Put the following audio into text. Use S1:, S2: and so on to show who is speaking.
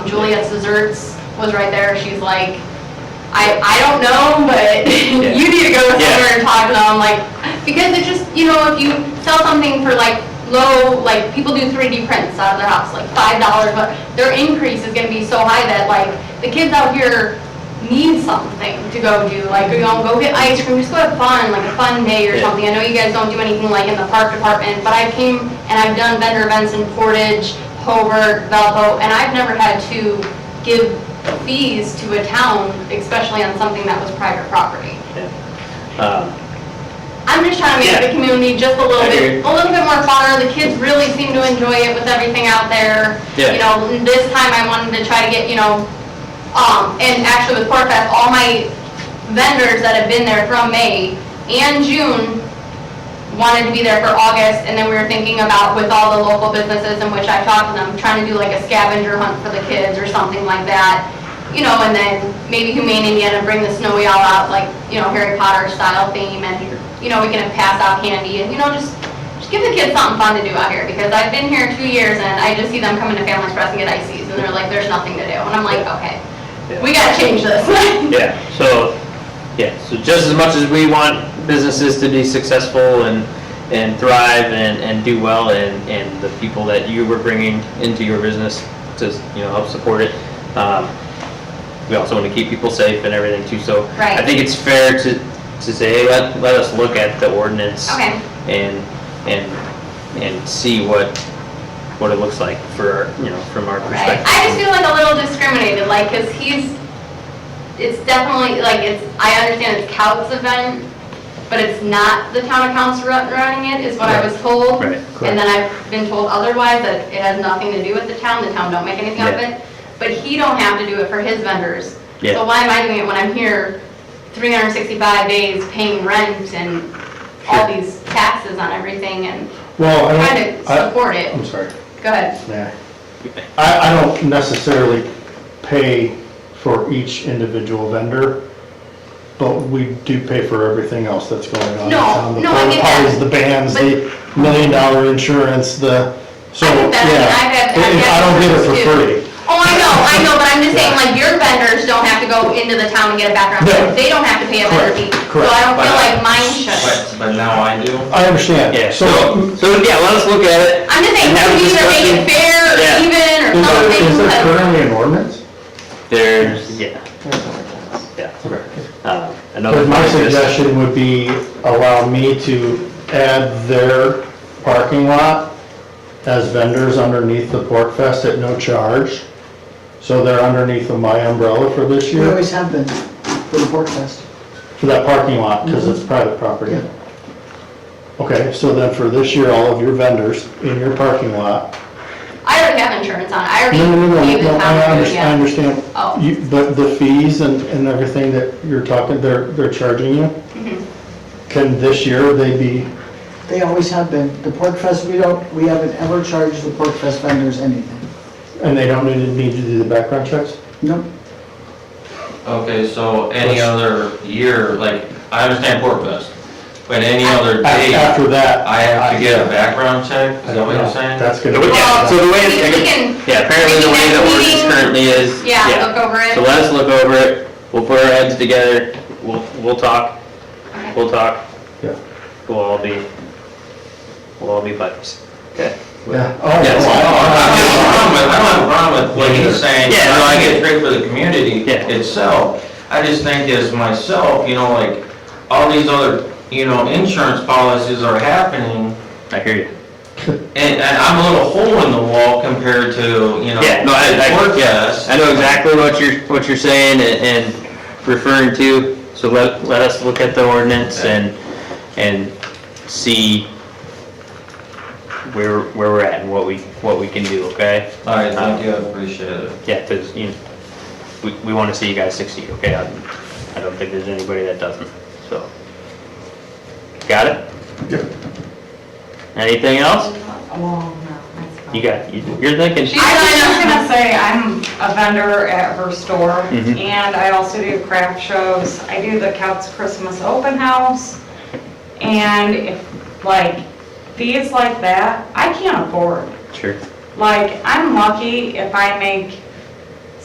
S1: Juliet's Desserts was right there, she's like, I, I don't know, but you need to go somewhere and talk to them, like, because it just, you know, if you sell something for like low, like, people do 3D prints out of their house, like five dollars, but their increase is gonna be so high that like, the kids out here need something to go do, like, you know, go get ice cream, just go have fun, like a fun day or
S2: Yeah.
S1: something. I know you guys don't do anything like in the park department, but I came and I've done vendor events in Portage, Hobart, Valpo, and I've never had to give fees to a town, especially on something that was private property.
S2: Um,
S1: I'm just trying to make the
S2: Yeah.
S1: community just a little
S2: I
S1: bit,
S2: agree.
S1: a little bit more funner. The kids really seem to enjoy it with everything out there.
S2: Yeah.
S1: You know, this time I wanted to try to get, you know, um, and actually with Pork Fest, all my vendors that have been there from May and June wanted to be there for August, and then we were thinking about with all the local businesses in which I talked to them, trying to do like a scavenger hunt for the kids or something like that. You know, and then maybe Humane Indiana bring the snowy owl out, like, you know, Harry Potter style theme, and, you know, we can have pass out candy, and, you know, just, just give the kids something fun to do out here, because I've been here two years, and I just see them coming to Family Express and get ices, and they're like, there's nothing to do, and I'm like, okay, we gotta change this.
S2: Yeah, so, yeah, so just as much as we want businesses to be successful and, and thrive and, and do well, and, and the people that you were bringing into your business to, you know, help support it, um, we also want to keep people safe and everything too, so.
S1: Right.
S2: I think it's fair to, to say, hey, let, let us look at the ordinance.
S1: Okay.
S2: And, and, and see what, what it looks like for, you know, from our
S1: Right.
S2: perspective.
S1: I just feel like a little discriminated, like, because he's, it's definitely, like, it's, I understand it's Coutts event, but it's not the town of Coutts ru- running it, is what I was told.
S2: Right,
S1: And then I've been told otherwise, that it has nothing to do with the town, the town don't make anything of
S2: Yeah.
S1: it. But he don't have to do it for his vendors.
S2: Yeah.
S1: So why am I doing it when I'm here 365 days paying rent and all these taxes on everything and
S3: Well, I
S1: trying
S3: don't,
S1: to
S3: I,
S1: support it?
S3: I'm sorry,
S1: Go ahead.
S3: yeah. I, I don't necessarily pay for each individual vendor, but we do pay for everything else that's going on. in
S1: No,
S3: town.
S1: no, I get that.
S3: The porta potties, the bands, the million dollar insurance, the, so,
S1: I
S3: yeah.
S1: think that's- I've had- I've
S3: It-
S1: had
S3: I don't get it for
S1: customers
S3: free.
S1: Oh, I know, I know, but I'm just saying, like, your vendors don't have to go into the town and get a background check.
S3: No.
S1: They don't have to pay a vendor fee.
S3: Correct,
S1: So
S3: correct.
S1: I don't feel like mine should.
S4: But, but now I do.
S3: I understand.
S2: Yeah, so,
S3: So,
S2: so, yeah, let us look at it.
S1: I'm just saying,
S2: And have a
S1: we either make it
S2: discussion.
S1: fair or
S2: Yeah.
S1: even or
S3: is there,
S1: something,
S3: is there
S1: but
S3: currently an ordinance?
S2: There's, yeah, yeah.
S3: Okay.
S2: Uh, Another
S3: But my
S2: thing is-
S3: suggestion would be allow me to add their parking lot as vendors underneath the Pork Fest at no charge. So they're underneath of my umbrella for this
S5: We
S3: year,
S5: always have been for the Pork Fest.
S3: for that parking lot, because it's private property.
S5: Yeah.
S3: Okay, so then for this year, all of your vendors in your parking lot.
S1: I already have insurance on it. I already
S3: No, no, no,
S1: gave
S3: no,
S1: the
S3: no,
S1: town,
S3: I under- I
S1: yeah.
S3: understand.
S1: Oh.
S3: You- But the fees and, and everything that you're talking, they're, they're charging you?
S1: Mm-hmm.
S3: Can this year they be
S5: They always have been. The Pork Fest, we don't, we haven't ever charged the Pork Fest vendors anything.
S3: And they don't need, need to do the background checks?
S5: Nope.
S4: Okay, so any other year, like, I understand Pork Fest, but any other
S3: A-
S4: day,
S3: After that.
S4: I have to get a background check, is that what you're
S3: Yeah,
S4: saying?
S3: That's
S2: So
S3: gonna.
S2: we- Yeah, so the way, it's-
S1: Well, we can-
S2: yeah, apparently the way the
S1: we can
S2: ordinance
S1: meeting-
S2: currently is.
S1: Yeah, look over
S2: So
S1: it.
S2: let us look over it, we'll put our heads together, we'll, we'll talk,
S1: Okay.
S2: we'll talk,
S3: Yeah,
S2: we'll all be, we'll all be buddies. Okay.
S3: yeah. Oh,
S2: Yes.
S4: No, I don't have a problem with- I don't have a problem with what he's saying,
S2: Yeah.
S4: you know, I think it's great for the community
S2: Yeah.
S4: itself. I just think as myself, you know, like, all these other, you know, insurance policies are happening,
S2: I hear you.
S4: and, and I'm a little hole in the wall compared to, you know,
S2: Yeah, no, I,
S4: Pork
S2: I, yeah,
S4: Fest.
S2: I know exactly what you're, what you're saying and- and referring to, so let, let us look at the ordinance and, and see where, where we're at and what we, what we can do, okay?
S4: All right, thank you, I appreciate it.
S2: Yeah, because, you, know, we, we want to see you guys succeed, okay? I I don't think there's anybody that doesn't, so. Got it?
S3: Yep.
S2: Anything else?
S6: Well, no, that's fine.
S2: You got, you- you're thinking.
S1: She-
S6: I was just gonna say, I'm a vendor at her store,
S2: Mhm.
S6: and I also do craft shows. I do the Couts Christmas Open House, and if, like, fees like that, I can't afford.
S2: Sure.
S6: Like, I'm lucky if I make